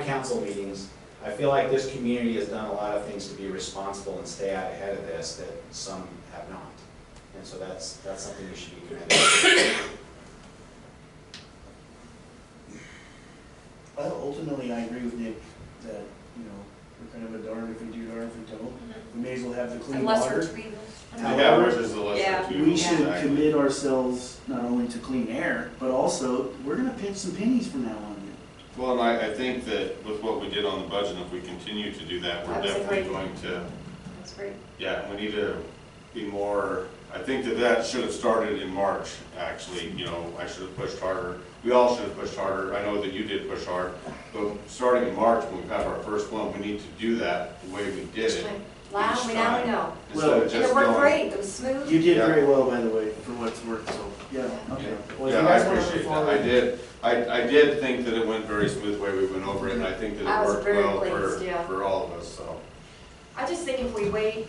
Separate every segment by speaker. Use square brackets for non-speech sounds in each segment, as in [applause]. Speaker 1: council meetings, I feel like this community has done a lot of things to be responsible and stay out ahead of this that some have not. And so that's, that's something we should be commended.
Speaker 2: Well, ultimately, I agree with Nick that, you know, we're kind of a darn if we do, darn if we don't. We may as well have the clean
Speaker 3: Unless we're
Speaker 2: water.
Speaker 3: treating.
Speaker 4: Yeah, which is the lesser
Speaker 3: Yeah.
Speaker 4: of two.
Speaker 2: We should
Speaker 4: exactly.
Speaker 2: commit ourselves not only to clean air, but also, we're gonna pinch some pennies from now on.
Speaker 4: Well, and I, I think that with what we did on the budget, if we continue to do that, we're
Speaker 3: That was a
Speaker 4: definitely
Speaker 3: great-
Speaker 4: going to,
Speaker 3: That's great.
Speaker 4: yeah, we need to be more, I think that that should have started in March, actually, you know, I should have pushed harder. We all should have pushed harder, I know that you did push hard, but starting in March, when we've had our first one, we need to do that the way we did it.
Speaker 3: Wow, we now we know.
Speaker 4: Instead of
Speaker 3: And it
Speaker 4: just
Speaker 3: worked
Speaker 4: going,
Speaker 3: great, it was smooth.
Speaker 2: You did
Speaker 4: Yeah.
Speaker 2: very well, by the way, for what's worth, so, yeah, okay. Well, if you
Speaker 4: Yeah, I
Speaker 2: guys wanna move
Speaker 4: appreciate that. I
Speaker 2: forward-
Speaker 4: did, I, I did think that it went very smooth the way we went over it, and I think that
Speaker 3: I
Speaker 4: it
Speaker 3: was
Speaker 4: worked
Speaker 3: very
Speaker 4: well for,
Speaker 3: pleased, yeah.
Speaker 4: for all of us, so.
Speaker 3: I just think if we wait,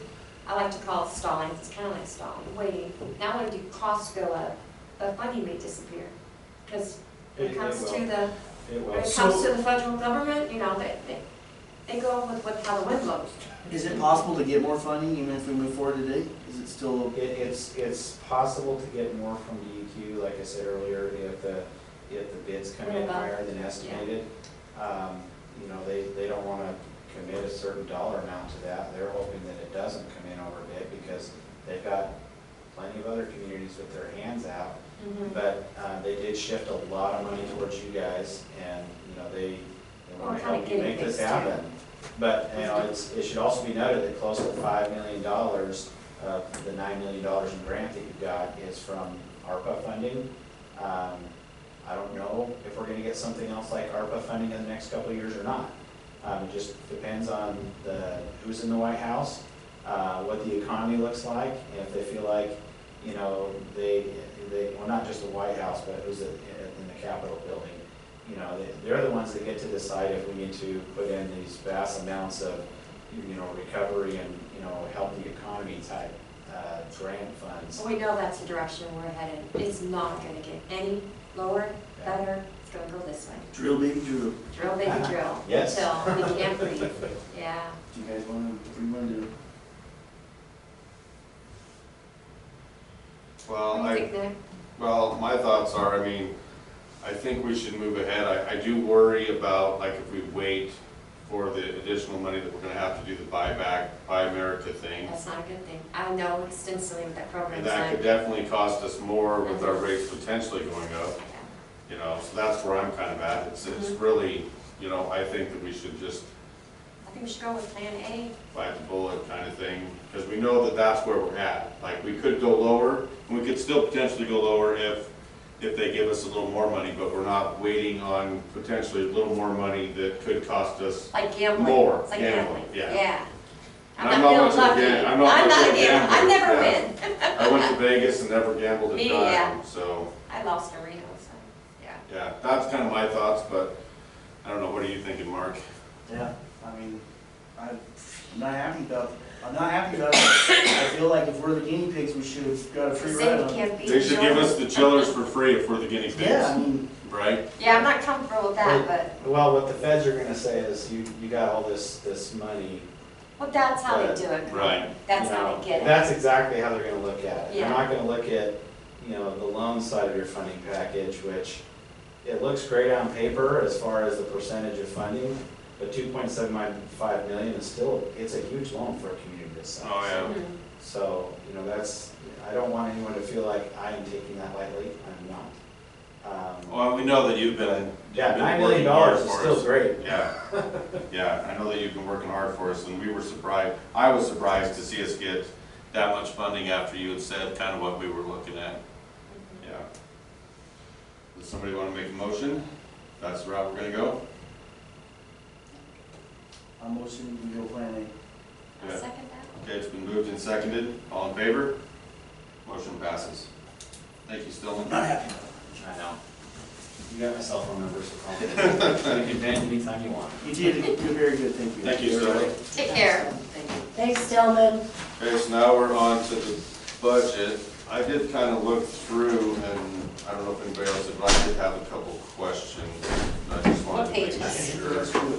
Speaker 3: I like to call it stalling, it's kind of like stalling, waiting. Now when do costs go up, but money may disappear. Because when
Speaker 1: It-
Speaker 3: it
Speaker 1: it
Speaker 3: comes to
Speaker 1: will.
Speaker 3: the,
Speaker 1: It
Speaker 3: when
Speaker 1: was,
Speaker 3: it comes to the federal government, you know, they, they, they go with what, how the wind blows.
Speaker 2: Is it possible to get more funding even if we move forward today? Is it still,
Speaker 1: it, it's, it's possible to get more from DEQ, like I said earlier, if the, if the bids come in higher than estimated. Um, You know, they, they don't wanna commit a certain dollar amount to that, they're hoping that it doesn't come in over bid, because they've got plenty of other communities with their hands out,
Speaker 4: Mm-hmm.
Speaker 1: But uh, they did shift a lot of money towards you guys, and, you know, they, they want
Speaker 3: Well,
Speaker 1: to
Speaker 3: kinda
Speaker 1: help you make
Speaker 3: getting
Speaker 1: this
Speaker 3: things
Speaker 1: happen. But, you know, it's, it should also be noted that close to five million dollars of the nine million dollars in grant that you got is from ARPA funding. Um, I don't know if we're gonna get something else like ARPA funding in the next couple of years or not. Um, It just depends on the, who's in the White House, uh, what the economy looks like, and if they feel like you know, they, they, well, not just the White House, but who's at- in the Capitol building. You know, they- they're the ones that get to decide if we need to put in these vast amounts of, you know, recovery and, you know, help the economy type, uh, grant funds.
Speaker 3: We know that's the direction we're headed. It's not gonna get any lower, better, it's gonna go this way.
Speaker 2: drill baby drill?
Speaker 3: Drill, baby,
Speaker 4: [laughs]
Speaker 3: drill.
Speaker 1: Yes.
Speaker 3: Until we can't breathe, yeah.
Speaker 2: Do you guys wanna, what do you wanna do?
Speaker 4: Well,
Speaker 3: What do you
Speaker 4: I,
Speaker 3: think, Nick?
Speaker 4: well, my thoughts are, I mean, I think we should move ahead. I, I do worry about, like, if we wait for the additional money that we're gonna have to do the buyback, buy America thing.
Speaker 3: That's not a good thing. I know extensively what that
Speaker 4: And
Speaker 3: program's
Speaker 4: that could
Speaker 3: like.
Speaker 4: definitely cost us more with our rates potentially going up,
Speaker 3: Yeah.
Speaker 4: you know, so that's where I'm kind of at. It's, it's
Speaker 3: Mm-hmm.
Speaker 4: really, you know, I think that we should just
Speaker 3: I think we should go with Plan A.
Speaker 4: bite the bullet kind of thing, because we know that that's where we're at. Like, we could go lower, and we could still potentially go lower if, if they give us a little more money, but we're not waiting on potentially a little more money that could cost us.
Speaker 3: Like gambling.
Speaker 4: More
Speaker 3: It's like
Speaker 4: gambling,
Speaker 3: gambling,
Speaker 4: yeah.
Speaker 3: yeah.
Speaker 4: And I'm not much of a
Speaker 3: feeling
Speaker 4: gam-
Speaker 3: lucky.
Speaker 4: I'm not
Speaker 3: I'm
Speaker 4: much
Speaker 3: not
Speaker 4: of
Speaker 3: a
Speaker 4: a
Speaker 3: gambler. I
Speaker 4: gambler,
Speaker 3: never win.
Speaker 4: yeah. I went to Vegas and never gambled a
Speaker 3: Me,
Speaker 4: dime,
Speaker 3: yeah.
Speaker 4: so,
Speaker 3: I lost a Reno, so, yeah.
Speaker 4: yeah, that's kind of my thoughts, but I don't know, what are you thinking, Mark?
Speaker 2: Yeah, I mean, I'm not happy about, I'm not happy about it. I feel like if we're the guinea pigs, we should have got a
Speaker 3: The
Speaker 2: free ride
Speaker 3: city
Speaker 2: on it.
Speaker 3: can't beat.
Speaker 4: They should give us
Speaker 3: Jordan.
Speaker 4: the chillers for free if we're the guinea
Speaker 2: Yeah, I
Speaker 4: pigs,
Speaker 2: mean,
Speaker 4: right?
Speaker 3: Yeah, I'm not comfortable with that, but,
Speaker 1: Well, what the feds are gonna say is, you, you got all this, this money.
Speaker 3: well, that's how they
Speaker 1: But-
Speaker 3: do it.
Speaker 4: Right.
Speaker 3: That's
Speaker 1: you
Speaker 3: how
Speaker 1: know,
Speaker 3: they get it.
Speaker 1: That's exactly how they're gonna look at it. They're
Speaker 3: Yeah.
Speaker 1: not gonna look at, you know, the loan side of your funding package, which it looks great on paper as far as the percentage of funding, but two point seven five million is still, it's a huge loan for a community this size.
Speaker 4: Oh, yeah.
Speaker 3: Mhm.
Speaker 1: So, you know, that's, I don't want anyone to feel like I am taking that lightly, I'm not. Um,
Speaker 4: Well, we know that you've been.
Speaker 1: Yeah,
Speaker 4: Oh, you've been
Speaker 1: nine million
Speaker 4: working hard
Speaker 1: dollars is
Speaker 4: for
Speaker 1: still
Speaker 4: us.
Speaker 1: great.
Speaker 4: Yeah, [laughs] yeah, I know that you've been working hard for us, and we were surprised, I was surprised to see us get that much funding after you had said kind of what we were looking at, yeah. Does somebody want to make a motion? That's the route we're gonna go?
Speaker 2: I'm motioning to go plan A.
Speaker 3: I'll
Speaker 4: Yeah.
Speaker 3: second that.
Speaker 4: Okay, it's been moved and seconded, all in favor? Motion passes. Thank you, Stillman.
Speaker 2: Not happy.
Speaker 1: I know. You got my cell phone number, so call me. You can vent anytime you want.
Speaker 2: You did, you're very good, thank you.
Speaker 4: Thank you, Stillman.
Speaker 3: Take care. Thank you.
Speaker 5: Thanks, Stillman.
Speaker 4: Okay, so now we're on to the budget. I did kind of look through, and I don't know if anybody else did, but I did have a couple questions. I just wanted to
Speaker 3: What
Speaker 4: make
Speaker 3: pages?
Speaker 4: sure.